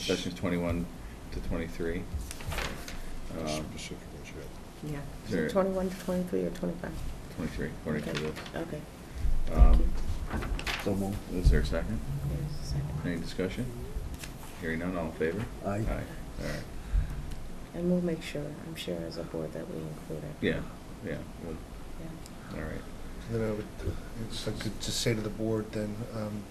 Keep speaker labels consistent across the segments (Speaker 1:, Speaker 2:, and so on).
Speaker 1: sessions twenty-one to twenty-three. Um,
Speaker 2: Specific ones, yeah.
Speaker 3: Yeah,
Speaker 1: Sure.
Speaker 3: so twenty-one to twenty-three or twenty-five?
Speaker 1: Twenty-three, according to
Speaker 3: Okay.
Speaker 1: the,
Speaker 3: Okay.
Speaker 1: um,
Speaker 4: So move.
Speaker 1: is there a second?
Speaker 3: There's a second.
Speaker 1: Any discussion? Hearing none, all in favor?
Speaker 4: Aye.
Speaker 1: Aye, all right.
Speaker 3: And we'll make sure, I'm sure as a board that we include it.
Speaker 1: Yeah, yeah, well,
Speaker 3: Yeah.
Speaker 1: all right.
Speaker 2: And then I would, it's good to say to the board then, um,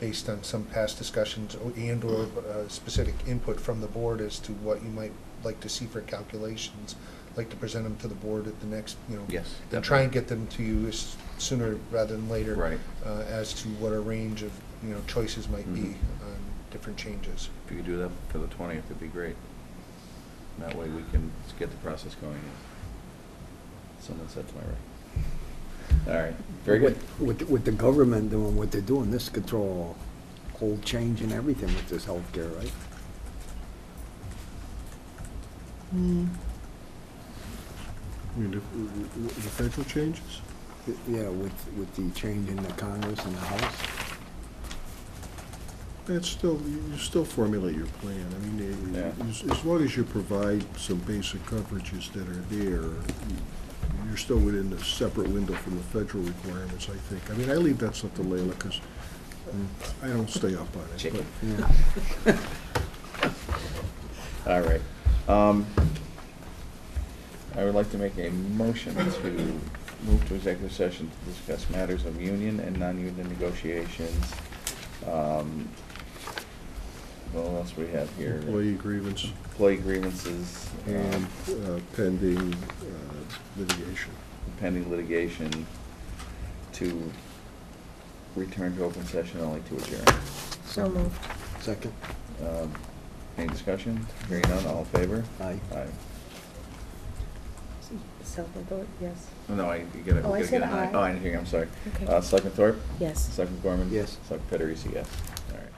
Speaker 2: based on some past discussions o- and or uh, specific input from the board as to what you might like to see for calculations, like to present them to the board at the next, you know.
Speaker 1: Yes.
Speaker 2: And try and get them to you as sooner rather than later.
Speaker 1: Right.
Speaker 2: Uh, as to what a range of, you know, choices might be
Speaker 1: Mhm.
Speaker 2: on different changes.
Speaker 1: If you could do that for the twentieth, it'd be great. And That way we can get the process going. Someone said to my right. All right, very good.
Speaker 4: With- With, with the government doing what they're doing, this could throw a whole change in everything with this healthcare, right?
Speaker 5: I mean, if- w- w- the federal changes?
Speaker 4: Yeah, with, with the change in the Congress and the House.
Speaker 5: That's still, you you still formulate your plan. I mean, eh,
Speaker 1: Yeah.
Speaker 5: as, as long as you provide some basic coverages that are there, you- you're still within a separate window from the federal requirements, I think. I mean, I leave that stuff to Leila, because I don't stay up on it.
Speaker 1: Chicken.
Speaker 5: but-
Speaker 4: Yeah.
Speaker 1: All right. Um, I would like to make a motion to move to executive session to discuss matters of union and non-union negotiations. Um, What else we have here?
Speaker 5: Employee grievance
Speaker 1: Employee grievances. um,
Speaker 5: and uh, pending uh, litigation.
Speaker 1: pending litigation to return to open session only to adjourn.
Speaker 3: So moved.
Speaker 4: Second.
Speaker 1: Um, Any discussion? Hearing none, all in favor?
Speaker 4: Aye.
Speaker 1: Aye.
Speaker 3: Selectman Thorpe, yes?
Speaker 1: No, I, you gotta,
Speaker 3: Oh, I
Speaker 1: we gotta
Speaker 3: said
Speaker 1: get an aye.
Speaker 3: aye.
Speaker 1: Oh, I didn't hear you, I'm sorry.
Speaker 3: Okay.
Speaker 1: Uh, Selectman Thorpe?
Speaker 3: Yes.
Speaker 1: Selectman Gorman?
Speaker 4: Yes.
Speaker 1: Selectman Federici, yes. All right.